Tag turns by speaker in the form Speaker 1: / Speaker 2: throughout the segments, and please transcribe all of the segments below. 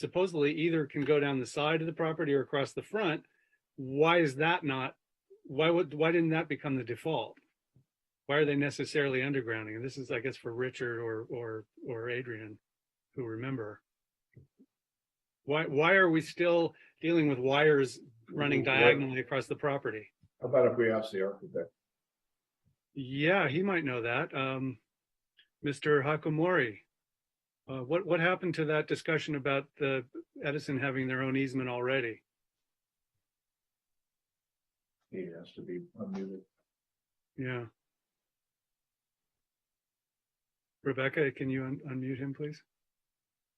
Speaker 1: supposedly either can go down the side of the property or across the front. Why is that not, why would, why didn't that become the default? Why are they necessarily undergrounding? And this is, I guess, for Richard or, or, or Adrian, who remember. Why, why are we still dealing with wires running
Speaker 2: Right.
Speaker 1: diagonally across the property?
Speaker 2: How about if we ask the architect?
Speaker 1: Yeah, he might know that. Um, Mr. Hakamori. Uh, what, what happened to that discussion about the Edison having their own easement already?
Speaker 2: He has to be unmuted.
Speaker 1: Yeah. Rebecca, can you un- unmute him, please?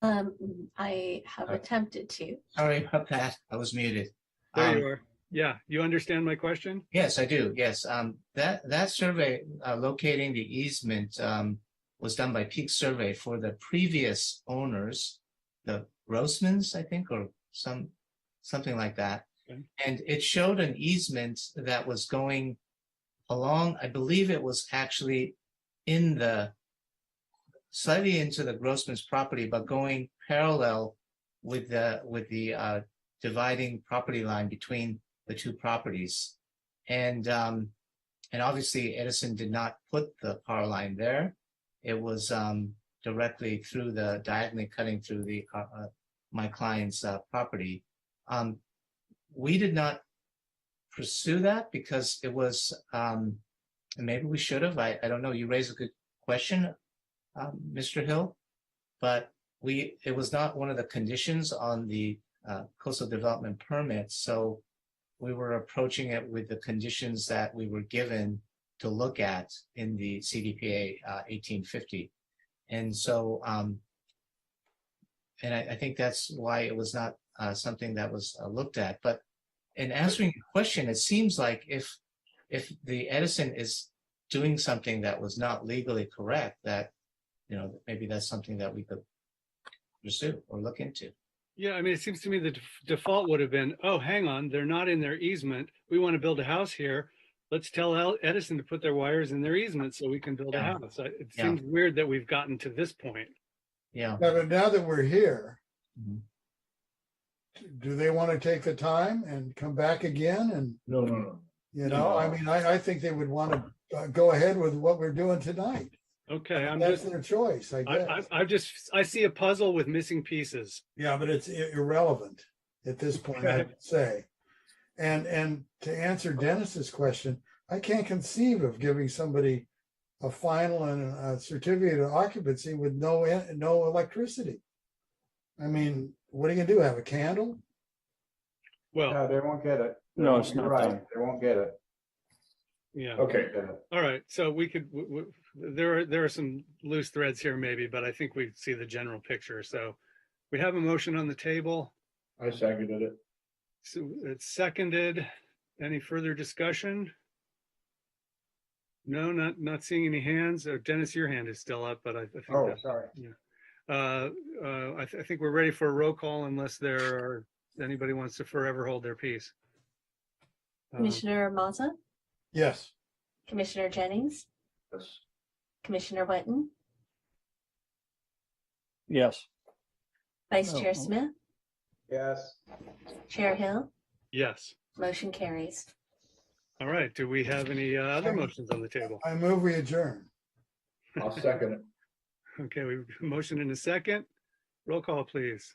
Speaker 3: Um, I have
Speaker 4: Okay.
Speaker 3: attempted to.
Speaker 4: Sorry about that. I was muted.
Speaker 1: There
Speaker 4: Um,
Speaker 1: you are. Yeah, you understand my question?
Speaker 4: Yes, I do. Yes, um, that, that survey, uh, locating the easement, um, was done by Peak Survey for the previous owners, the Grossmans, I think, or some, something like that.
Speaker 1: Okay.
Speaker 4: And it showed an easement that was going along, I believe it was actually in the, slightly into the Grossman's property, but going parallel with the, with the, uh, dividing property line between the two properties. And um, and obviously Edison did not put the power line there. It was um, directly through the diagonally cutting through the uh, uh, my client's uh, property. Um, we did not pursue that because it was um, and maybe we should have. I, I don't know. You raise a good question, um, Mr. Hill, but we it was not one of the conditions on the uh, coastal development permit. So we were approaching it with the conditions that we were given to look at in the CDPA uh, 1850. And so, um, and I, I think that's why it was not uh, something that was uh, looked at. But in answering your question, it seems like if if the Edison is doing something that was not legally correct, that you know maybe that's something that we could pursue or look into.
Speaker 1: Yeah, I mean, it seems to me the def- default would have been, oh, hang on, they're not in their easement. We want to build a house here. Let's tell El- Edison to put their wires in their easement so we can build a
Speaker 4: Yeah.
Speaker 1: house. I- It
Speaker 4: Yeah.
Speaker 1: seems weird that we've gotten to this point.
Speaker 4: Yeah.
Speaker 5: Now, that- now that we're here,
Speaker 4: Mhm.
Speaker 5: do they want to take the time and come back again? And,
Speaker 2: No, no, no.
Speaker 5: you know, I
Speaker 2: No.
Speaker 5: mean, I, I think they would want to uh, go ahead with what we're doing tonight.
Speaker 1: Okay, I'm
Speaker 5: That's
Speaker 1: just,
Speaker 5: their choice, I
Speaker 1: I, I,
Speaker 5: guess.
Speaker 1: I just, I see a puzzle with missing pieces.
Speaker 5: Yeah, but it's i- irrelevant at this point,
Speaker 1: Okay.
Speaker 5: I'd say. And, and to answer Dennis's question, I can't conceive of giving somebody a final and a certificate of occupancy with no, en- no electricity. I mean, what are you gonna do? Have a candle?
Speaker 1: Well,
Speaker 6: No, they won't get it.
Speaker 7: No, it's
Speaker 6: You're
Speaker 7: not
Speaker 6: right.
Speaker 7: done.
Speaker 6: They won't get it.
Speaker 1: yeah,
Speaker 2: Okay,
Speaker 6: Get it.
Speaker 1: all right, so we could, w- w- there are, there are some loose threads here maybe, but I think we see the general picture, so. We have a motion on the table,
Speaker 2: I seconded it.
Speaker 1: so it's seconded, any further discussion? No, not, not seeing any hands, Uh, Dennis, your hand is still up, but I, I think,
Speaker 6: Oh,
Speaker 1: that-
Speaker 6: sorry.
Speaker 1: uh, uh, I, th- I think we're ready for a roll call unless there are, anybody wants to forever hold their peace. Um,
Speaker 3: Commissioner Maza,
Speaker 5: Yes.
Speaker 3: Commissioner Jennings,
Speaker 2: Yes.
Speaker 3: Commissioner Wetton,
Speaker 7: Yes.
Speaker 3: Vice
Speaker 7: Oh,
Speaker 3: Chair
Speaker 7: oh.
Speaker 3: Smith,
Speaker 6: Yes.
Speaker 3: Chair Hill,
Speaker 1: Yes,
Speaker 3: motion carries.
Speaker 1: all right, do we have any uh, other motions on the table?
Speaker 5: I move we adjourn.
Speaker 2: I'll second it.
Speaker 1: Okay, we motion in a second. Roll call, please.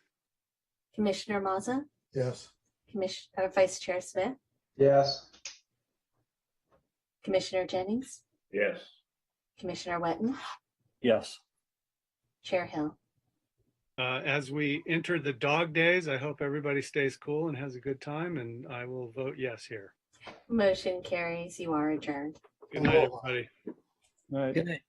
Speaker 3: Commissioner Maza,
Speaker 5: Yes.
Speaker 3: Commission, uh, Vice Chair Smith,
Speaker 6: Yes.
Speaker 3: Commissioner Jennings,
Speaker 2: Yes.
Speaker 3: Commissioner Wetton,
Speaker 7: Yes.
Speaker 3: Chair Hill.
Speaker 1: Uh, As we enter the dog days, I hope everybody stays cool and has a good time, and I will vote yes here.
Speaker 3: Motion carries. You are adjourned.
Speaker 1: Good night, everybody.
Speaker 7: All right.
Speaker 4: Good night.